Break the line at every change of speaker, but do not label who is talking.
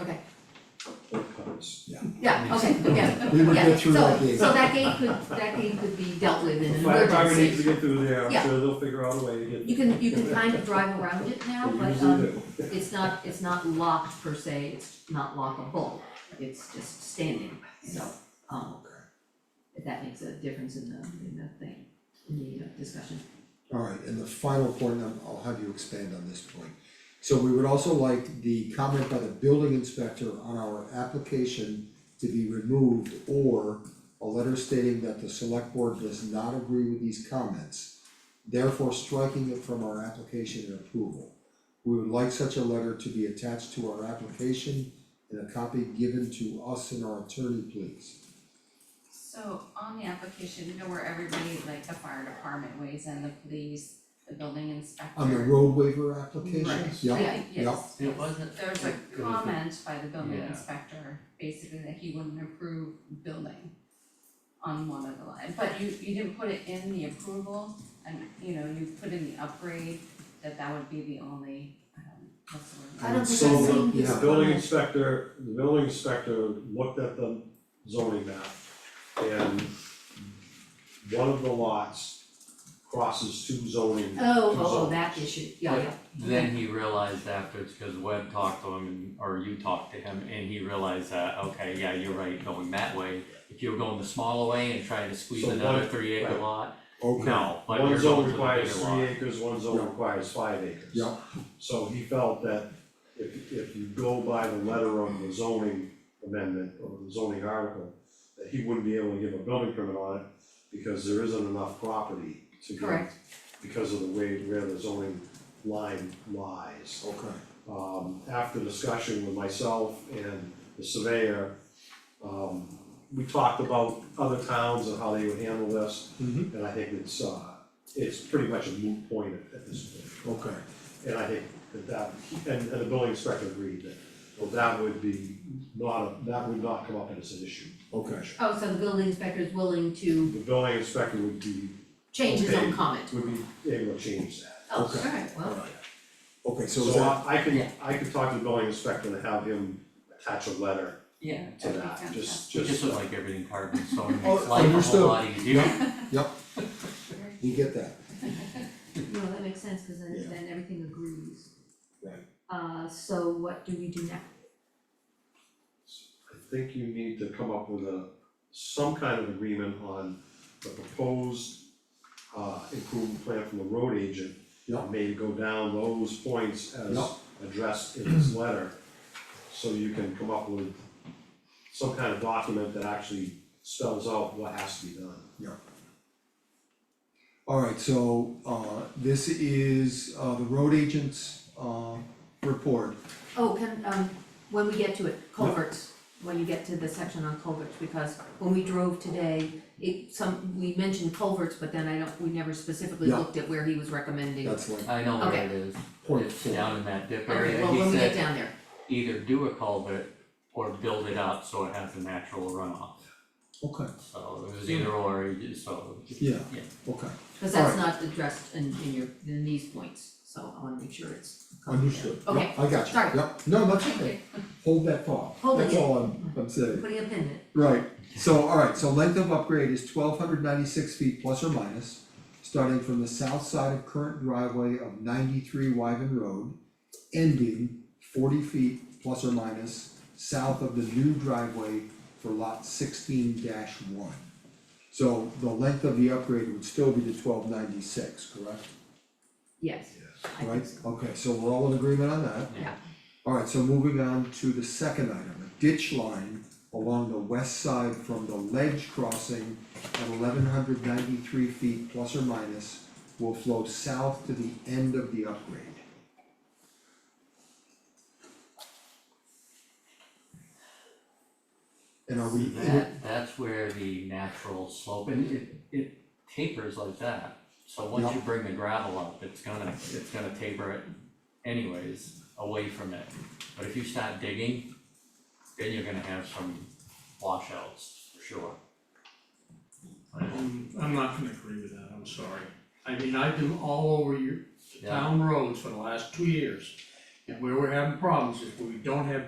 okay,
It covers, yeah.
yeah, okay, yeah,
We would
yeah,
get through that
so,
gate.
so that gate could, that gate could be dealt with in an
Fire department needs to
emergency.
get through there, I'm
Yeah.
sure they'll figure out a way to get.
You can, you can kind of drive around it now,
They
but,
usually
um,
do.
it's not, it's not locked per se, it's not lockable, it's just standing, so, um, if that makes a difference in the, in the thing, in the uh, discussion.
Alright, and the final point, and I'll have you expand on this point. So we would also like the comment by the building inspector on our application to be removed or a letter stating that the select board does not agree with these comments, therefore striking it from our application and approval. We would like such a letter to be attached to our application and a copy given to us and our attorney, please.
So on the application, you know where everybody, like the fire department weighs in, the police, the building inspector.
On the road waiver application,
Right,
yeah,
I think, yes,
It
yes.
wasn't.
There was a
it was-
comment by the building
Yeah.
inspector, basically that he wouldn't approve building on one of the line, but you you didn't put it in the approval and, you know, you put in the upgrade, that that would be the only, um, what's the word?
I don't think
So,
I've seen
yeah.
these
The building
comments.
inspector, the building inspector looked at the zoning map and one of the lots crosses two zoning.
Oh,
two
oh, oh,
zones.
that issue, yeah, yeah,
Then he realized afterwards, cause Webb talked to him and, or you talked to him, and he realized that, okay, yeah, you're right, going that way. If you were going the smaller way and trying to squeeze
So
another
one-
three acre
right.
lot,
okay.
no, but
One
you're going
zone
to the bigger lot.
requires three acres, one
Yeah.
zone requires five acres.
Yeah.
So he felt that if if you go by the letter of the zoning amendment or the zoning article, that he wouldn't be able to give a building permit on it because there isn't enough property to give.
Correct.
Because of the way where the zoning line lies
Okay.
um, after discussion with myself and the surveyor, um, we talked about other towns and how they would handle this.
Mhm.
And I think it's, uh, it's pretty much a moot point at, at this point.
Okay,
And I think that that, and, and the building inspector agreed that, well, that would be not, a- that would not come up as an issue.
okay,
oh, so the building inspector is willing to
The building inspector would be,
change his own
Okay.
comment,
would be able to change that.
oh,
Okay.
alright, well,
alright. Okay, so
So
is that,
I, I can,
Yeah.
I can talk to the building inspector and have him attach a letter
Yeah,
to
That'd be
that, just,
it
just.
just looked like everything carbon, so it
Oh,
makes life a
understood.
whole lot easier.
we get that,
no, that makes sense, cause then
Yeah.
then everything agrees.
Right.
Uh, so what do we do now?
I think you need to come up with a, some kind of agreement on the proposed uh improvement plan from the road agent.
Yeah.
Maybe go down those points as
Yeah.
addressed in this letter. So you can come up with some kind of document that actually spells out what has to be done.
alright, so uh this is uh the road agent's uh report.
Oh, can, um, when we get to it, culverts, when you get to the section on culverts, because when we drove today, it, some, we mentioned culverts, but then I don't, we never specifically
Yeah.
looked at where he was recommending.
That's like
I know where
Okay.
it is,
point
it's
four,
down in that dip
Okay,
area,
well,
he
when we get
said
down there,
either do a culvert or build it up so it has a natural runoff,
okay,
so it was either or, you just- so.
yeah,
Yeah.
okay,
cause that's not addressed in, in your, in these points, so I wanna make sure it's. covered there.
understood,
Okay,
yeah, I got you,
sorry.
yeah, no, that's
Thank you.
okay, hold that thought,
Hold
that's
it.
all I'm I'm saying.
putting a pin in it.
Right, so, alright, so length of upgrade is twelve hundred ninety-six feet plus or minus, starting from the south side of current driveway of ninety-three Wyven Road, ending forty feet plus or minus south of the new driveway for lot sixteen one. So the length of the upgrade would still be the twelve ninety-six, correct?
Yes,
Yes.
I think
Right,
so.
okay, so we're all in agreement on that?
Yeah.
Alright, so moving on to the second item, a ditch line along the west side from the ledge crossing at eleven hundred ninety-three feet plus or minus will flow south to the end of the upgrade. And are we,
That, that's where the natural slope, and it, it tapers like that. So once you bring the gravel up, it's gonna, it's gonna taper it anyways, away from it. But if you start digging, then you're gonna have some washouts, for sure.
I'm, Um, I'm not gonna agree with that, I'm sorry. I mean, I've been all over your, the
Yeah.
town roads for the last two years. And where we're having problems is we don't have